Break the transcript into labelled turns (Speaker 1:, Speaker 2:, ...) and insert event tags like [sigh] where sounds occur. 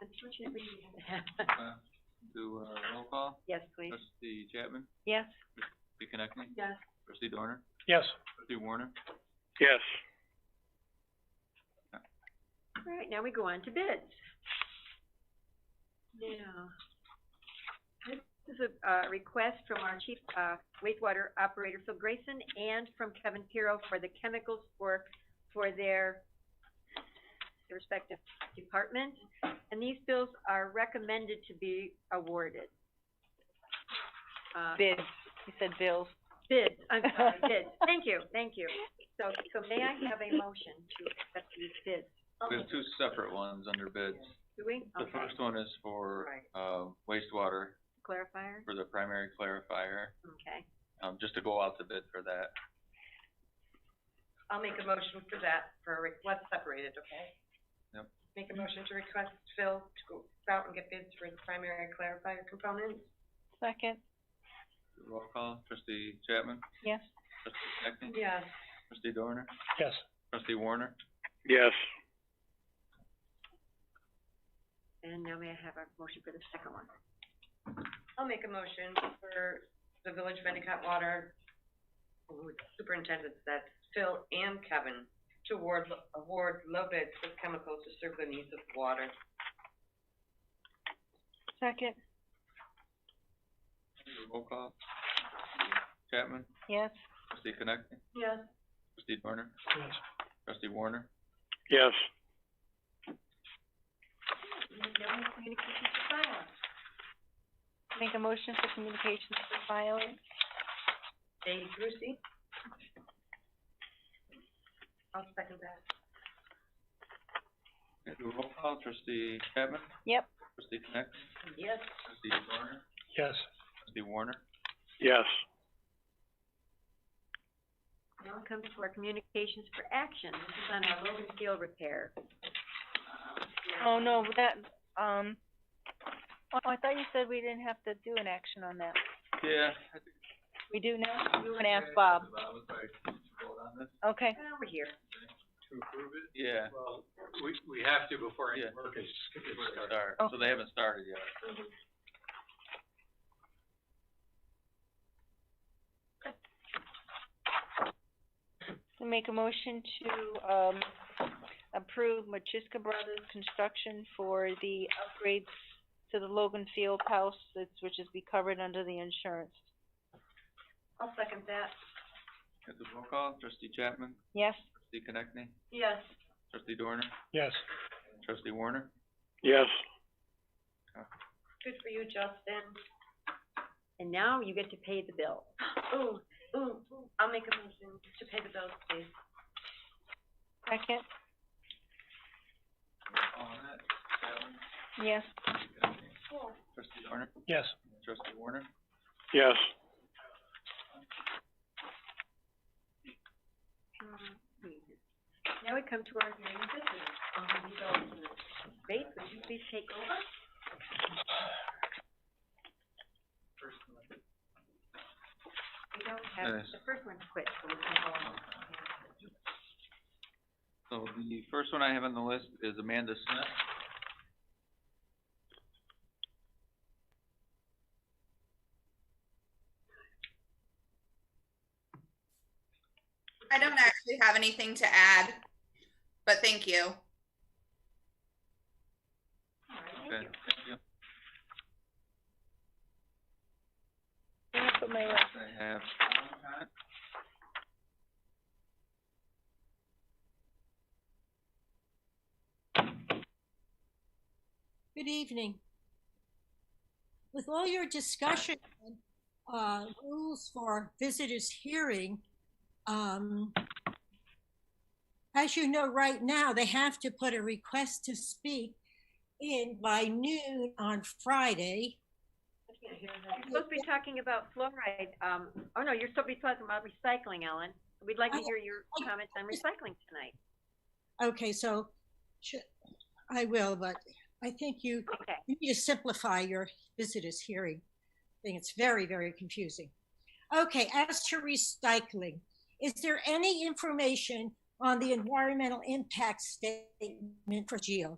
Speaker 1: Unfortunately, we
Speaker 2: Do, uh, roll call,
Speaker 1: Yes, please.
Speaker 2: trustee Chapman,
Speaker 1: Yes.
Speaker 2: trustee Connectney,
Speaker 1: Yes.
Speaker 2: trustee Dorner,
Speaker 3: Yes.
Speaker 2: trustee Warner.
Speaker 3: Yes.
Speaker 1: All right, now we go on to bids. Now, this is a, uh, request from our chief, uh, wastewater operator Phil Grayson and from Kevin Piro for the chemicals for, for their respective departments. And these bills are recommended to be awarded. Uh,
Speaker 4: Bids, you said bills.
Speaker 1: bids, I'm sorry, bids. Thank you, thank you. So, so may I have a motion to accept these bids?
Speaker 2: We have two separate ones under bids.
Speaker 1: Do we?
Speaker 2: The
Speaker 1: Okay.
Speaker 2: first one is for,
Speaker 1: Right.
Speaker 2: uh, wastewater
Speaker 1: Clarifier?
Speaker 2: for the primary clarifier,
Speaker 1: Okay.
Speaker 2: um, just to go out to bid for that.
Speaker 5: I'll make a motion for that, for, a re- let's separate it, okay?
Speaker 2: Yep.
Speaker 5: Make a motion to request Phil to go out and get bids for the primary clarifier components.
Speaker 4: Second,
Speaker 2: Roll call, trustee Chapman,
Speaker 4: yes.
Speaker 2: trustee Connectney,
Speaker 5: Yes.
Speaker 2: trustee Dorner,
Speaker 3: Yes.
Speaker 2: trustee Warner.
Speaker 3: Yes.
Speaker 1: And now may I have a motion for the second one?
Speaker 5: I'll make a motion for the Village of Endicott Water who is Superintendent, that Phil and Kevin to award, award low bids for chemicals to serve the needs of water.
Speaker 4: Second,
Speaker 2: Roll call, Chapman,
Speaker 4: yes.
Speaker 2: trustee Connectney,
Speaker 5: Yes.
Speaker 2: trustee Dorner,
Speaker 3: Yes.
Speaker 2: trustee Warner.
Speaker 3: Yes.
Speaker 1: No communications to file.
Speaker 4: Make a motion for communications for filing.
Speaker 5: Dave Brucey? I'll second that.
Speaker 2: Okay, do a roll call, trustee Chapman,
Speaker 4: Yep,
Speaker 2: trustee Connectney,
Speaker 5: Yes.
Speaker 2: trustee Dorner,
Speaker 3: Yes.
Speaker 2: trustee Warner.
Speaker 3: Yes.
Speaker 1: Now it comes to our communications for action. This is on our Logan Field repair.
Speaker 4: oh no, that, um, oh, I thought you said we didn't have to do an action on that.
Speaker 2: Yeah, I think
Speaker 4: We do now? We can ask Bob.
Speaker 2: Bob would probably vote on this.
Speaker 4: Okay,
Speaker 1: Well, we're here.
Speaker 3: To approve it?
Speaker 2: Yeah.
Speaker 3: Well, we, we have to before any
Speaker 2: Yeah.
Speaker 3: work is, is
Speaker 2: Before they
Speaker 3: started.
Speaker 2: start,
Speaker 4: Oh.
Speaker 2: so they haven't started yet.
Speaker 4: make a motion to, um, approve Machiska Brothers Construction for the upgrades to the Logan Field House, that's- which is be covered under the insurance.
Speaker 5: I'll second that.
Speaker 2: At the roll call, trustee Chapman,
Speaker 4: Yes?
Speaker 2: trustee Connectney,
Speaker 5: Yes.
Speaker 2: trustee Dorner,
Speaker 3: Yes.
Speaker 2: trustee Warner.
Speaker 3: Yes.
Speaker 5: Good for you, Justin.
Speaker 1: And now you get to pay the bill.
Speaker 5: [gasps] Ooh, ooh, ooh. I'll make a motion to pay the bills, please.
Speaker 4: Second,
Speaker 2: On that, Chapman,
Speaker 4: yes.
Speaker 2: Connectney, trustee Dorner,
Speaker 3: Yes.
Speaker 2: trustee Warner.
Speaker 3: Yes.
Speaker 1: Hmm. Now we come to our hearing of business. So, Faith, would you please take over? We don't have,
Speaker 2: Yes.
Speaker 1: the first one's quit, so we can go on.
Speaker 2: So the first one I have on the list is Amanda Smith.
Speaker 6: I don't actually have anything to add, but thank you.
Speaker 1: All right, thank
Speaker 2: Okay,
Speaker 1: you.
Speaker 2: thank you.
Speaker 4: Let me put my left
Speaker 2: I have.
Speaker 7: Good evening. With all your discussion, uh, rules for visitors hearing, um, as you know, right now, they have to put a request to speak in by noon on Friday.
Speaker 1: You're supposed to be talking about fluoride, um, oh no, you're supposed to be talking about recycling, Ellen. We'd like to
Speaker 7: I-
Speaker 1: hear your comments on recycling tonight.
Speaker 7: Okay, so should, I will, but I think you,
Speaker 1: Okay,
Speaker 7: you need to simplify your visitors hearing thing. It's very, very confusing. Okay, as to recycling, is there any information on the environmental impact statement for Geo?